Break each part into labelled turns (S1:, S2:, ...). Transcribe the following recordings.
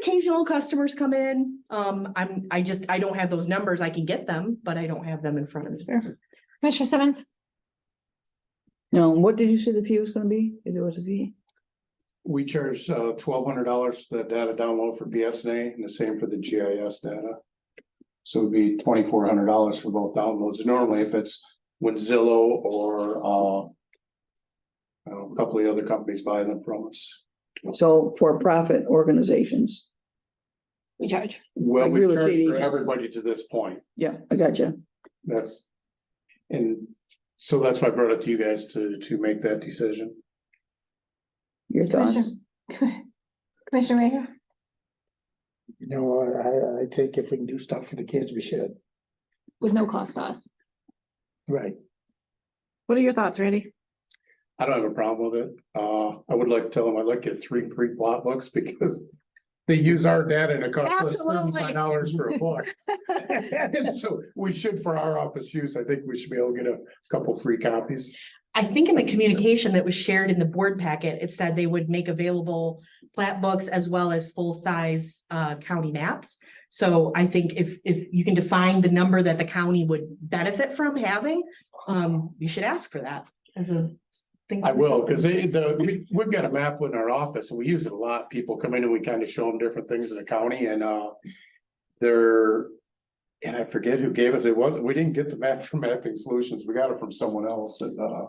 S1: Occasional customers come in. Um, I'm, I just, I don't have those numbers. I can get them, but I don't have them in front of me.
S2: Commissioner Simmons?
S3: Now, what did you say the fee was gonna be? If there was a fee?
S4: We charge uh twelve hundred dollars for the data download for BSNA and the same for the GIS data. So it'd be twenty-four hundred dollars for both downloads. Normally, if it's with Zillow or uh. I don't know, a couple of the other companies buy them from us.
S3: So for-profit organizations.
S2: We charge.
S4: Well, we
S3: Like real
S4: charge
S3: estate
S4: for
S3: agents.
S4: everybody to this point.
S3: Yeah, I gotcha.
S4: That's. And so that's why I brought it to you guys to to make that decision.
S3: Your thoughts?
S2: Commissioner Commissioner Rager?
S5: You know, I, I think if we can do stuff for the kids, we should.
S2: With no cost to us.
S5: Right.
S2: What are your thoughts, Randy?
S4: I don't have a problem with it. Uh, I would like to tell them I'd like to get three free plot books because they use our data and it costs us
S2: Absolutely.
S4: thirty-five dollars for a book. And so we should, for our office use, I think we should be able to get a couple free copies.
S1: I think in the communication that was shared in the board packet, it said they would make available plat books as well as full-size uh county maps. So I think if if you can define the number that the county would benefit from having, um, you should ask for that as a thing.
S4: I will, because they, the, we, we've got a map in our office and we use it a lot. People come in and we kind of show them different things in the county and, uh, they're, and I forget who gave us, it wasn't, we didn't get the map from Mapping Solutions. We got it from someone else and, uh,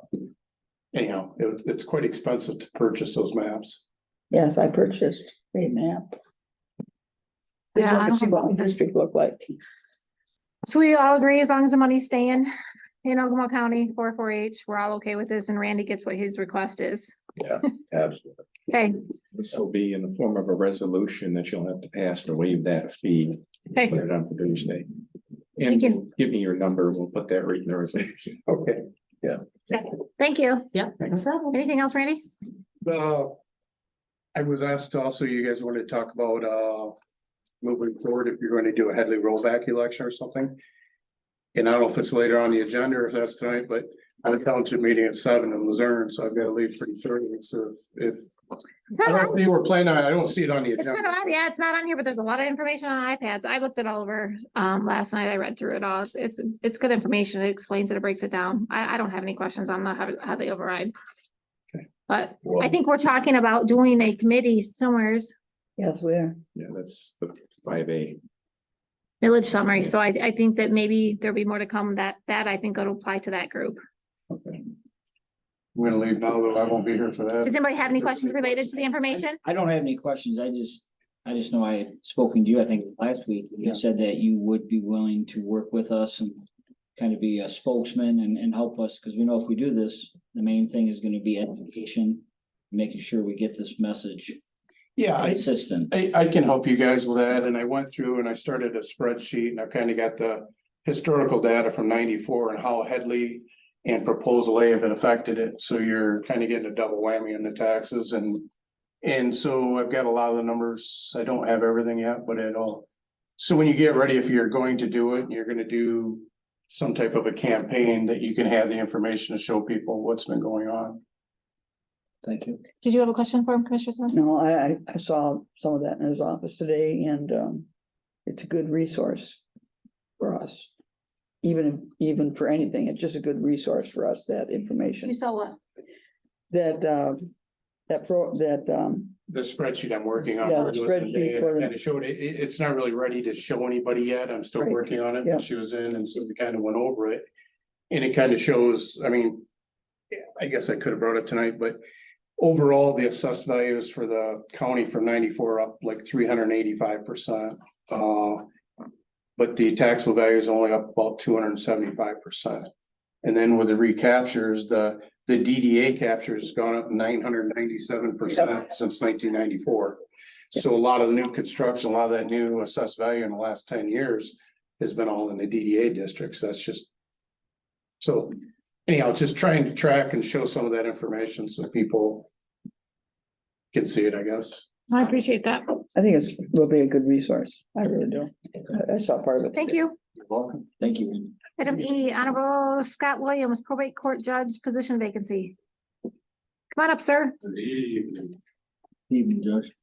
S4: anyhow, it, it's quite expensive to purchase those maps.
S3: Yes, I purchased a map. Just
S2: Yeah, I
S3: want to
S2: don't
S3: see what
S2: have-
S3: the district look like.
S2: So we all agree, as long as the money's staying in Ogama County, four four H, we're all okay with this, and Randy gets what his request is.
S6: Absolutely.
S2: Okay,
S6: This will be in the form of a resolution that you'll have to pass to waive that fee.
S2: okay,
S6: Put it on for Thursday.
S2: Thank you.
S6: And give me your number. We'll put that right in the resolution.
S4: Okay.
S2: thank you.
S1: Yeah.
S6: Thanks.
S2: Anything else, Randy?
S4: Uh, I was asked also, you guys wanted to talk about, uh, moving forward, if you're going to do a Headley rollback election or something. And I don't know if it's later on the agenda or if that's tonight, but I'm at township meeting at seven in Luzerne, so I've got to leave pretty soon. So if, if,
S2: It's
S4: I
S2: not
S4: don't
S2: on-
S4: think we're planning on, it. I don't see it on the
S2: it's not
S4: agenda.
S2: on, yeah, it's not on here, but there's a lot of information on iPads. I looked it all over, um, last night. I read through it all. It's, it's, it's good information. It explains it, it breaks it down. I, I don't have any questions on the, how, how they override.
S6: Okay.
S2: But I
S6: Well,
S2: think we're talking about doing a committee somewheres,
S3: Yes, we are.
S6: yeah, that's the five A.
S2: village summary, so I, I think that maybe there'll be more to come that, that I think it'll apply to that group.
S6: Okay.
S4: I'm gonna leave now, though. I won't be here for
S2: Does
S4: that.
S2: anybody have any questions related to the information?
S7: I don't have any questions. I just, I just know I had spoken to you, I think last week,
S4: Yeah.
S7: you said that you would be willing to work with us and kind of be a spokesman and, and help us, because we know if we do this, the main thing is gonna be education, making sure we get this message
S4: Yeah, I,
S7: consistent.
S4: I, I can help you guys with that, and I went through and I started a spreadsheet and I kind of got the historical data from ninety-four and how Headley and Proposal A have affected it, so you're kind of getting a double whammy on the taxes and and so I've got a lot of the numbers, I don't have everything yet, but it all. So when you get ready, if you're going to do it, and you're gonna do some type of a campaign that you can have the information to show people what's been going on.
S7: Thank you.
S2: Did you have a question for him, Commissioner Smith?
S3: No, I, I, I saw some of that in his office today and, um, it's a good resource for us. Even, even for anything, it's just a good resource for us, that information,
S2: You saw what?
S3: that, uh, that pro, that, um,
S4: The spreadsheet I'm working on.
S3: Yeah, the
S4: It was the day
S3: spreadsheet for the-
S4: Kind of showed it, it, it's not really ready to show anybody yet. I'm still
S3: Right.
S4: working on it.
S3: Yeah.
S4: She was in and so we kind of went over it. And it kind of shows, I mean, yeah, I guess I could have brought it tonight, but overall, the assessed values for the county from ninety-four up like three hundred and eighty-five percent. Uh, but the taxable value is only up about two hundred and seventy-five percent. And then with the recaptures, the, the DDA capture's gone up nine hundred and ninety-seven percent since nineteen ninety-four. So a lot of the new construction, a lot of that new assessed value in the last ten years has been all in the DDA districts. That's just. So anyhow, just trying to track and show some of that information so people can see it, I guess.
S2: I appreciate that.
S3: I think it's, will be a good resource. I really do. I- I saw part of it.
S2: Thank
S3: today.
S2: you.
S7: You're welcome. Thank you.
S2: Item
S7: Randy.
S2: E, Honorable Scott Williams, probate court judge position vacancy. Come on up, sir.
S7: Evening, Judge.